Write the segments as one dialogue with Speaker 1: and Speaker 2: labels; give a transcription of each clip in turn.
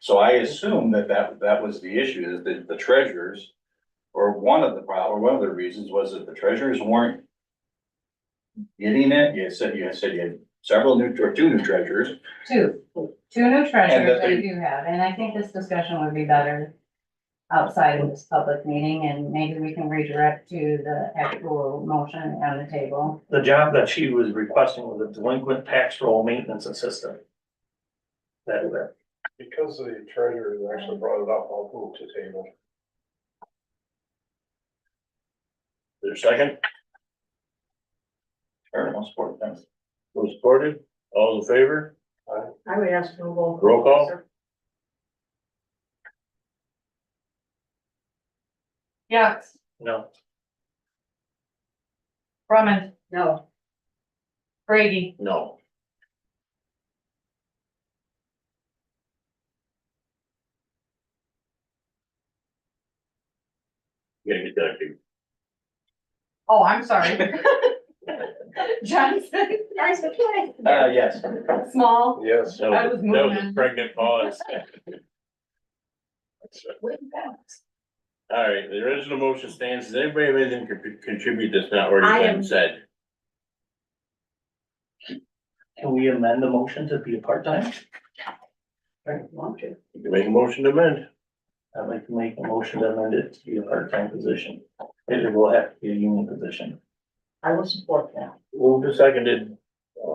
Speaker 1: So I assume that that, that was the issue, is that the treasurers, or one of the problem, one of the reasons was that the treasurers weren't getting it, you said, you said you had several new, or two new treasurers,
Speaker 2: Two, two new
Speaker 1: And that
Speaker 2: treasurers
Speaker 1: they-
Speaker 2: I do have, and I think this discussion would be better outside of this public meeting, and maybe we can redirect to the actual motion on the table.
Speaker 3: The job that she was requesting was a delinquent tax roll maintenance assistant. That, that,
Speaker 4: Because the treasurer actually brought it up, I'll move to table.
Speaker 1: their second. Or most important, thanks.
Speaker 5: Who supported? All in favor?
Speaker 6: I would ask for a roll.
Speaker 5: Roll call?
Speaker 6: sir. Yax,
Speaker 3: no,
Speaker 6: Brumman. No. Brady,
Speaker 5: No. Gotta get that, dude.
Speaker 6: oh, I'm sorry. Johnson. Nice to
Speaker 1: Uh, yes,
Speaker 6: Small.
Speaker 4: Yes,
Speaker 5: That
Speaker 6: I
Speaker 5: was, that was a
Speaker 6: was moving.
Speaker 5: pregnant pause. All right, the original motion stands. Does anybody have anything to con- contribute that's not
Speaker 6: I
Speaker 5: already
Speaker 6: am-
Speaker 5: been said?
Speaker 3: can we amend the motion to be a part-time?
Speaker 5: You can make a motion to amend.
Speaker 3: I'd like to make a motion to amend it to be a part-time position. It will have to be a union position.
Speaker 6: I will support that.
Speaker 5: Moved and seconded. Uh,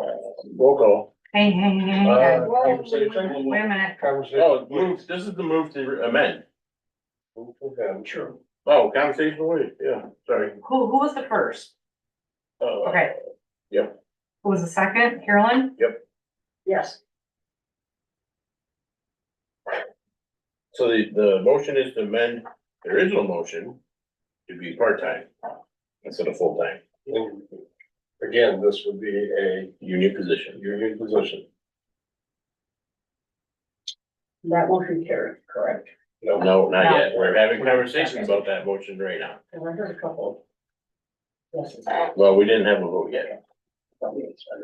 Speaker 5: Roll call.
Speaker 2: Hey, hey, hey, hey,
Speaker 4: Uh,
Speaker 2: guys.
Speaker 4: conversation.
Speaker 2: Oh, wait a minute,
Speaker 4: Conversation.
Speaker 5: Oh, it's move, this is the move to amend.
Speaker 4: Move to them.
Speaker 5: Sure. Oh, conversation away, yeah, sorry.
Speaker 6: Who, who was the first?
Speaker 5: Uh,
Speaker 6: Okay.
Speaker 5: Yep.
Speaker 6: Who was the second? Carolyn?
Speaker 5: Yep.
Speaker 6: Yes.
Speaker 5: So the, the motion is to amend the original motion to be part-time instead of full-time,
Speaker 4: And Again, this would be a
Speaker 5: union position.
Speaker 4: union position.
Speaker 6: That motion carried, correct.
Speaker 4: No,
Speaker 5: No, not yet. We're having conversation about that motion right now.
Speaker 6: And I heard a couple. Yes.
Speaker 7: Uh,
Speaker 5: Well, we didn't have a vote yet.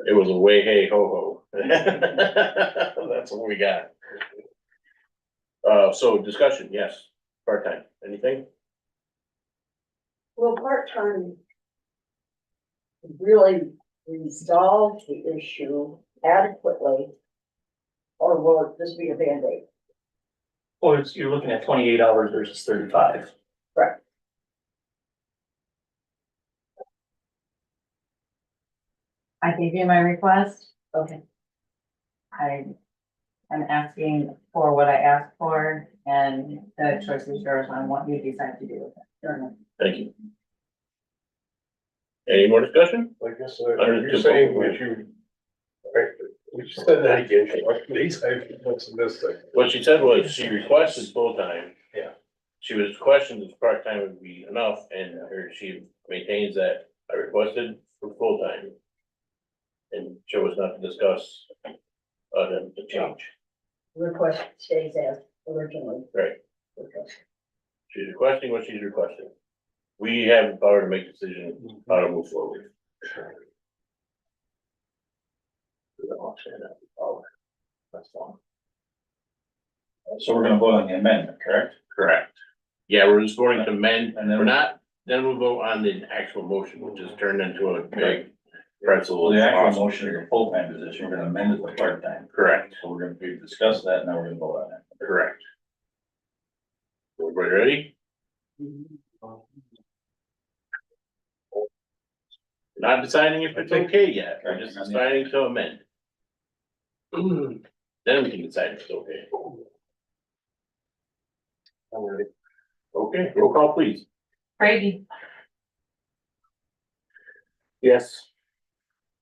Speaker 5: It was a way, hey, ho, ho. That's what we got. Uh, so discussion, yes, part-time, anything?
Speaker 7: Well, part-time really resolve the issue adequately, or will this be a Band-Aid?
Speaker 3: Or Oh, it's, you're looking at twenty-eight hours versus thirty-five.
Speaker 2: I gave you my request.
Speaker 7: Okay.
Speaker 2: I am asking for what I asked for, and the choice is yours on what you decide to do with it.
Speaker 5: Thank you. Any more discussion?
Speaker 4: I guess, uh, you're saying that you. Right, we just said that again, please, I, what's this thing?
Speaker 5: What she said was she requested full-time.
Speaker 4: Yeah.
Speaker 5: She was questioned if part-time would be enough and her, she maintains that I requested for full-time. And chose not to discuss, uh, the, the change.
Speaker 7: Request stays as originally.
Speaker 5: Right.
Speaker 7: Okay.
Speaker 5: She's requesting what she's requesting. We have the power to make decision how to move forward. We don't want to say that. Oh, That's all.
Speaker 1: so we're gonna vote on the amendment, correct?
Speaker 5: Correct. Yeah, we're just voting to amend,
Speaker 1: And
Speaker 5: we're
Speaker 1: then,
Speaker 5: not, then we'll vote on the actual motion, which is turned into a big pretzel.
Speaker 1: well, the actual motion is a full-time position, we're gonna amend it to part-time.
Speaker 5: Correct,
Speaker 1: So we're gonna, we've discussed that, now we're gonna vote on it.
Speaker 5: correct. Everybody ready? Not deciding if it's okay yet, we're just deciding to amend. Then we can decide if it's okay.
Speaker 4: All right.
Speaker 5: Okay, roll call please.
Speaker 6: Brady,
Speaker 5: Yes.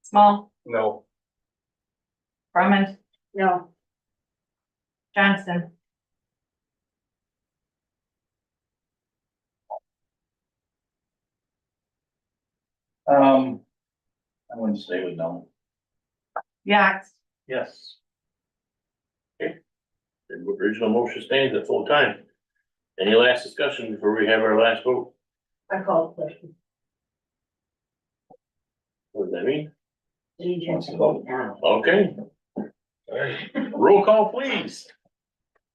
Speaker 6: Small,
Speaker 4: No,
Speaker 6: Brumman,
Speaker 7: No,
Speaker 6: Johnson.
Speaker 1: Um, I wouldn't say with no.
Speaker 6: Yax,
Speaker 3: Yes.
Speaker 5: The original motion stands at full time. Any last discussion before we have our last vote?
Speaker 7: I call the question.
Speaker 5: What does that mean?
Speaker 7: Do you just vote now?
Speaker 5: Okay,
Speaker 4: all right,
Speaker 5: roll call please.